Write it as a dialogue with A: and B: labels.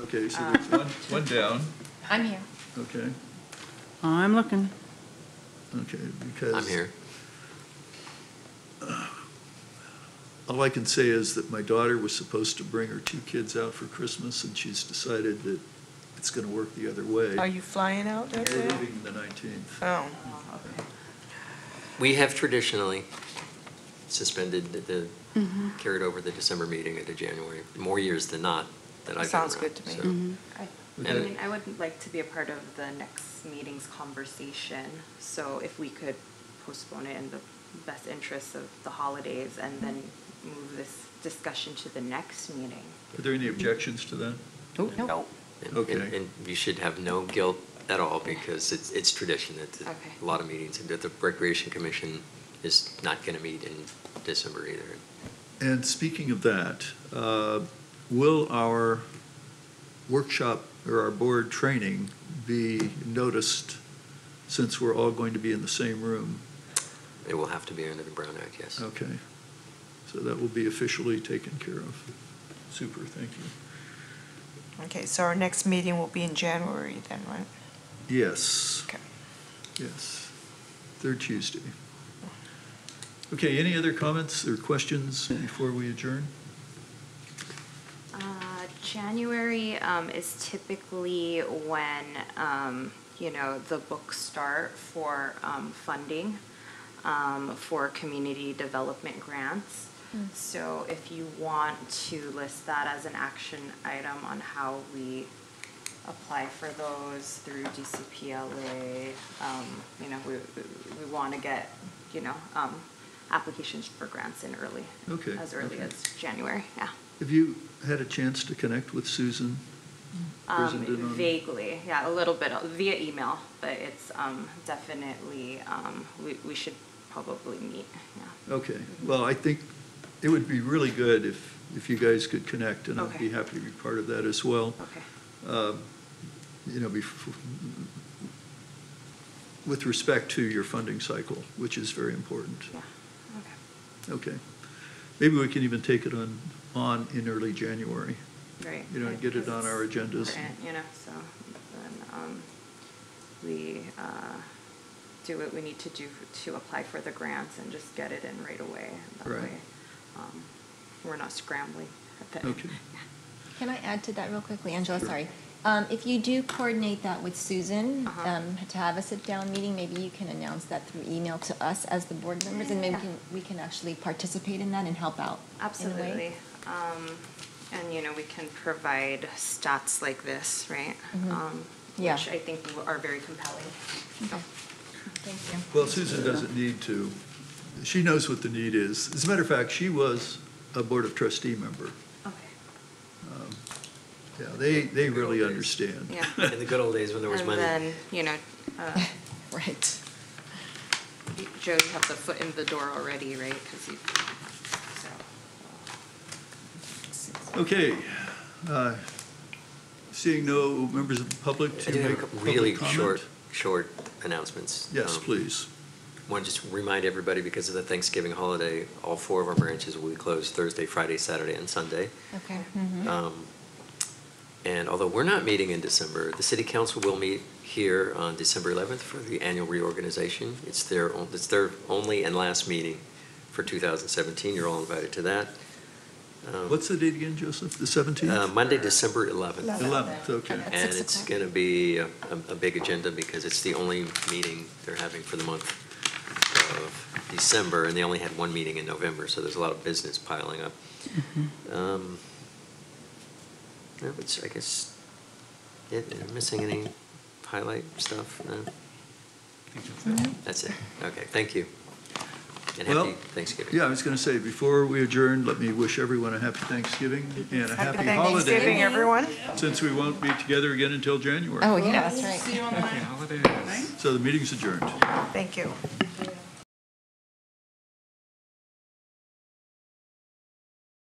A: Okay, so there's one, one down,
B: I'm here.
A: Uh, okay,
C: I'm looking.
A: okay, because.
D: I'm here.
A: All I can say is that my daughter was supposed to bring her two kids out for Christmas, and she's decided that it's gonna work the other way.
E: Are you flying out
A: We're
E: that day?
A: leaving the nineteenth.
E: Oh,
D: We have traditionally suspended the- the, carried over the December meeting into January, more years than not that I've been around.
E: Sounds good to me.
D: so-
C: Mm-hmm.
F: I
D: And-
F: mean, I would like to be a part of the next meeting's conversation, so if we could postpone it in the best interests of the holidays and then move this discussion to the next meeting.
A: Are there any objections to that?
C: Nope.
D: and-
A: Okay.
D: And and you should have no guilt at all because it's, it's tradition. It's
F: Okay.
D: a lot of meetings. And that the Recreation Commission is not going to meet in December either.
A: And speaking of that, uh, will our workshop or our board training be noticed since we're all going to be in the same room?
D: It will have to be under the Brown Act, yes.
A: Okay, so that will be officially taken care of. Super, thank you.
E: okay, so our next meeting will be in January then, right?
A: Yes.
E: Okay.
A: Yes, third Tuesday. Okay, any other comments or questions before we adjourn?
F: Uh, January um, is typically when, um, you know, the books start for um, funding um, for community development grants. So if you want to list that as an action item on how we apply for those through DCPLA, um, you know, we, we- we want to get, you know, um, applications for grants in early.
A: Okay,
F: As early
A: okay.
F: as January, yeah.
A: Have you had a chance to connect with Susan?
F: Um,
A: Presented on-
F: vaguely, yeah, a little bit uh, via email, but it's um, definitely, um, we, we should probably meet, yeah.
A: Okay, well, I think it would be really good if, if you guys could connect, and I'd be
F: Okay.
A: happy to be part of that as well.
F: Okay,
A: Uh, You know, bef- with respect to your funding cycle, which is very important.
F: yeah, okay,
A: Okay. Maybe we can even take it on, on in early January.
F: great.
A: You know,
F: Yeah,
A: get it
F: 'cause
A: on our
F: it's
A: agendas.
F: important, You know, so then um, we uh, do what we need to do to apply for the grants and just get it in right away. That
A: Right.
F: way, um, We're not scrambling at the
A: Okay.
B: Can I add to that real quickly, Angela? Sorry. Um, if you do coordinate that with Susan,
F: Uh-huh.
B: um, to have a sit-down meeting, maybe you can announce that through email to us as the board members, and maybe we
F: Yeah.
B: can, we can actually participate in that and help out. in a way.
F: Absolutely. Um, and, you know, we can provide stats like this, right? Um,
B: Mm-hmm. Yeah.
F: Which I think w- are very compelling.
B: Okay. Thank you.
A: Well, Susan doesn't need to. She knows what the need is. As a matter of fact, she was a Board of Trustee member.
F: Okay.
A: Um, Yeah, they, they really understand.
F: Yeah.
D: In the good old days when there was
F: And
D: money.
F: then, you know, uh,
B: Right.
F: Joe, you have the foot in the door already, right? Because you, so.
A: Okay. uh, Seeing no members of the public
D: I
A: to
D: do have a
A: make
D: couple
A: public
D: really
A: comment?
D: short, short announcements.
A: Yes,
D: Um,
A: please.
D: Want to just remind everybody, because of the Thanksgiving holiday, all four of our branches will be closed Thursday, Friday, Saturday, and Sunday.
B: Okay.
D: Um, And although we're not meeting in December, the city council will meet here on December 11th for the annual reorganization. It's their, on- it's their only and last meeting for 2017. You're all invited to that. Um,
A: What's the date again, Joseph? The
D: uh,
A: 17th?
D: Monday, December 11th.
A: 11th, okay.
B: At
D: And
B: six
D: it's
B: o'clock.
D: going to be a, a- a big agenda because it's the only meeting they're having for the month of December, and they only had one meeting in November, so there's a lot of business piling up.
B: Mm-hmm.
D: Um, yeah, which I guess, yeah, am I missing any highlight stuff? No? That's it. Okay, thank you. And
A: Well,
D: happy Thanksgiving.
A: Yeah, I was going to say, before we adjourn, let me wish everyone a happy Thanksgiving and a happy
E: Thanksgiving,
A: holiday,
E: everyone.
A: since we won't be together again until January.
B: Oh, yeah, that's right.
A: So the meeting's adjourned.
E: Thank you.